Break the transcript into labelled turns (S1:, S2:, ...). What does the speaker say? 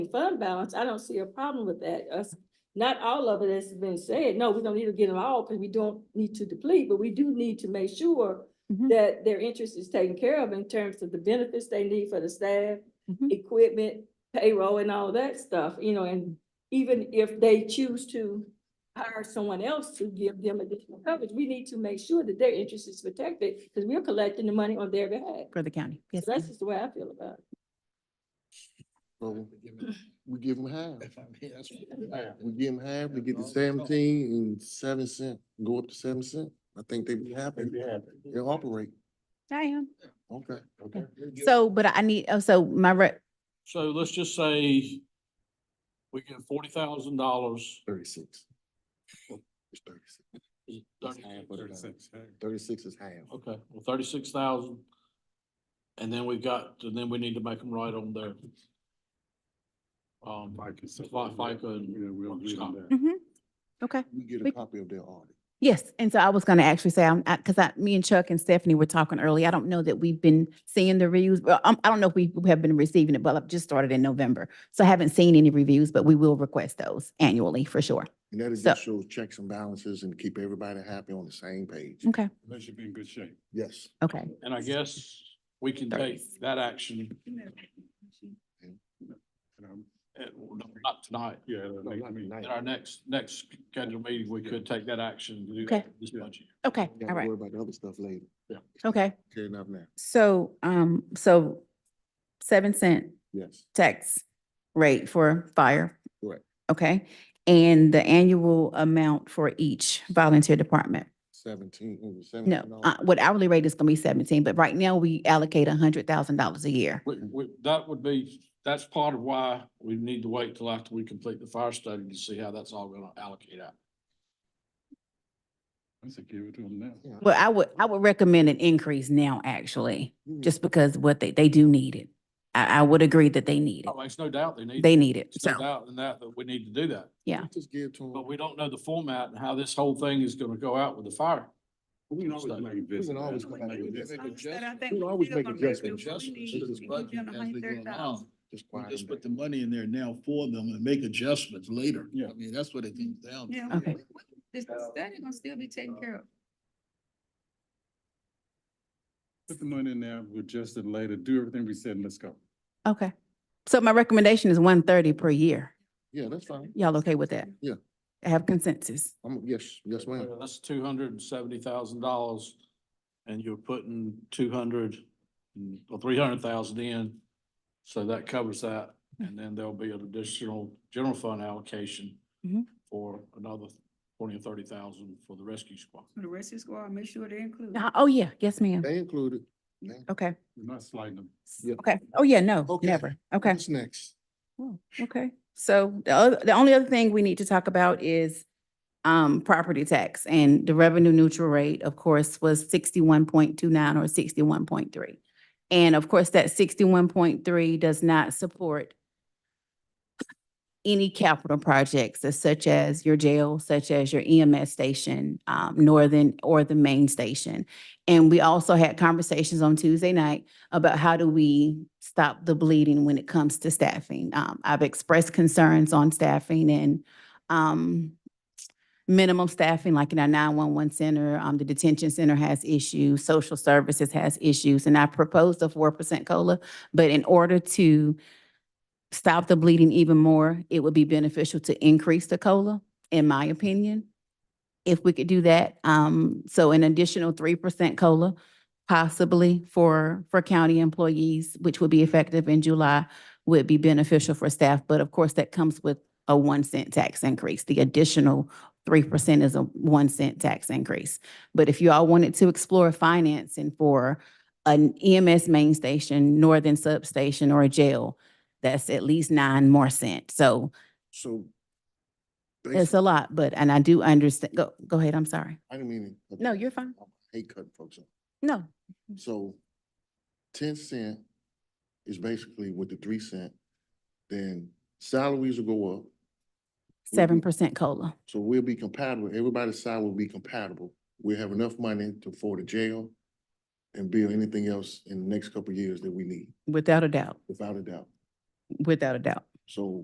S1: fund balance, I don't see a problem with that. Us, not all of it has been said. No, we don't need to get them all because we don't need to deplete, but we do need to make sure
S2: Mhm.
S1: that their interest is taken care of in terms of the benefits they need for the staff,
S2: Mhm.
S1: equipment, payroll and all that stuff, you know, and even if they choose to hire someone else to give them additional coverage, we need to make sure that their interest is protected because we're collecting the money on their behalf.
S2: for the county. Yes,
S1: So That's just the way I feel about it.
S3: So we give them half.
S4: If
S3: We give them half, we get the seventeen and seven cent, go up to seven cent. I think they'd be happy. They'll operate.
S2: I am.
S3: Okay.
S2: Okay. So, but I need, oh, so my re,
S4: So let's just say we get forty thousand dollars.
S3: Thirty-six. It's thirty-six.
S4: Okay,
S3: Thirty-six is half.
S4: well, thirty-six thousand. And then we got, and then we need to make them right on there. Um, Fi- FICA and workers' comp.
S2: okay,
S3: We get a
S2: We-
S3: copy of their audit.
S2: mm-hmm. yes. And so I was gonna actually say, I'm, I, cause I, me and Chuck and Stephanie were talking earlier. I don't know that we've been seeing the reviews, but um, I don't know if we have been receiving it, but I've just started in November. So I haven't seen any reviews, but we will request those annually for sure.
S3: And that is
S2: So-
S3: just show checks and balances and keep everybody happy on the same page.
S2: Okay,
S4: They should be in good shape.
S3: Yes.
S2: okay.
S4: And I guess we can take that action at- not tonight.
S5: Yeah.
S3: No, not tonight.
S4: At our next, next scheduled meeting, we could take that action. to do
S2: Okay.
S4: This budget.
S2: Okay,
S3: Got
S2: all
S3: to
S2: right,
S3: worry about the other stuff later.
S2: okay.
S3: Okay, enough now.
S2: So, um, so seven cent
S3: Yes.
S2: tax rate for fire.
S3: Correct.
S2: Okay, and the annual amount for each volunteer department.
S3: Seventeen, it was
S2: No,
S3: seventeen.
S2: uh, what hourly rate is gonna be seventeen, but right now we allocate a hundred thousand dollars a year.
S4: We, we, that would be, that's part of why we need to wait till after we complete the fire study to see how that's all gonna allocate out.
S3: Yeah.
S2: Well, I would, I would recommend an increase now, actually,
S3: Mm.
S2: just because what they, they do need it. I, I would agree that they need
S4: Oh,
S2: it.
S4: there's no doubt they need.
S2: They need it,
S4: There's no
S2: so,
S4: doubt in that, that we need to do that.
S2: yeah.
S3: Just give to them.
S4: But we don't know the format and how this whole thing is gonna go out with the fire.
S5: We can always
S4: Study.
S5: make
S3: We can always
S5: adjustments.
S3: come back with that.
S5: We can always make adjustments.
S6: Adjustments to this
S3: We
S6: budget as they go along.
S3: Just
S6: We
S3: quiet
S6: just
S3: them
S6: put the money in there now for them and make adjustments later.
S5: Yeah.
S6: I mean, that's what it comes down to.
S7: Yeah.
S2: Okay.
S7: This study gonna still be taken care of.
S5: Put the money in there, we adjust it later, do everything we said, and let's go.
S2: okay. So my recommendation is one thirty per year.
S3: Yeah, that's fine.
S2: Y'all okay with that?
S3: Yeah.
S2: I have consensus.
S3: I'm, yes, yes, ma'am.
S4: Uh, That's two hundred and seventy thousand dollars, and you're putting two hundred or three hundred thousand in. So that covers that, and then there'll be an additional general fund allocation
S2: Mhm.
S4: for another twenty or thirty thousand for the rescue squad.
S7: So the rest is squad, make sure they're included.
S2: Uh, Oh, yeah, yes, ma'am.
S3: They included.
S2: Okay.
S5: We're not sliding them.
S3: Yeah.
S2: Okay. Oh, yeah, no,
S3: Okay.
S2: never. Okay.
S3: What's next?
S2: Oh, Okay, so the other, the only other thing we need to talk about is um, property tax and the revenue neutral rate, of course, was sixty-one point two nine or sixty-one point three. And of course, that sixty-one point three does not support any capital projects as such as your jail, such as your EMS station, um, Northern or the main station. And we also had conversations on Tuesday night about how do we stop the bleeding when it comes to staffing. Um, I've expressed concerns on staffing and, um, minimum staffing, like in our nine-one-one center, um, the detention center has issues, social services has issues, and I proposed a four percent COLA. But in order to stop the bleeding even more, it would be beneficial to increase the COLA, in my opinion. If we could do that, um, so an additional three percent COLA, possibly for, for county employees, which would be effective in July, would be beneficial for staff, but of course, that comes with a one cent tax increase. The additional three percent is a one cent tax increase. But if you all wanted to explore financing for an EMS main station, northern substation, or a jail, that's at least nine more cent. So
S3: So.
S2: it's
S3: basi-
S2: a lot, but, and I do understand, go, go ahead, I'm sorry.
S3: I didn't mean. to cut
S2: No,
S3: you.
S2: you're fine.
S3: I Hate cutting folks off.
S2: No,
S3: So ten cent is basically with the three cent, then salaries will go up.
S2: seven percent COLA.
S3: So we'll be compatible. Everybody's salary will be compatible. We'll have enough money to afford a jail and build anything else in the next couple of years that we need,
S2: Without a doubt,
S3: without a doubt.
S2: without a doubt.
S3: So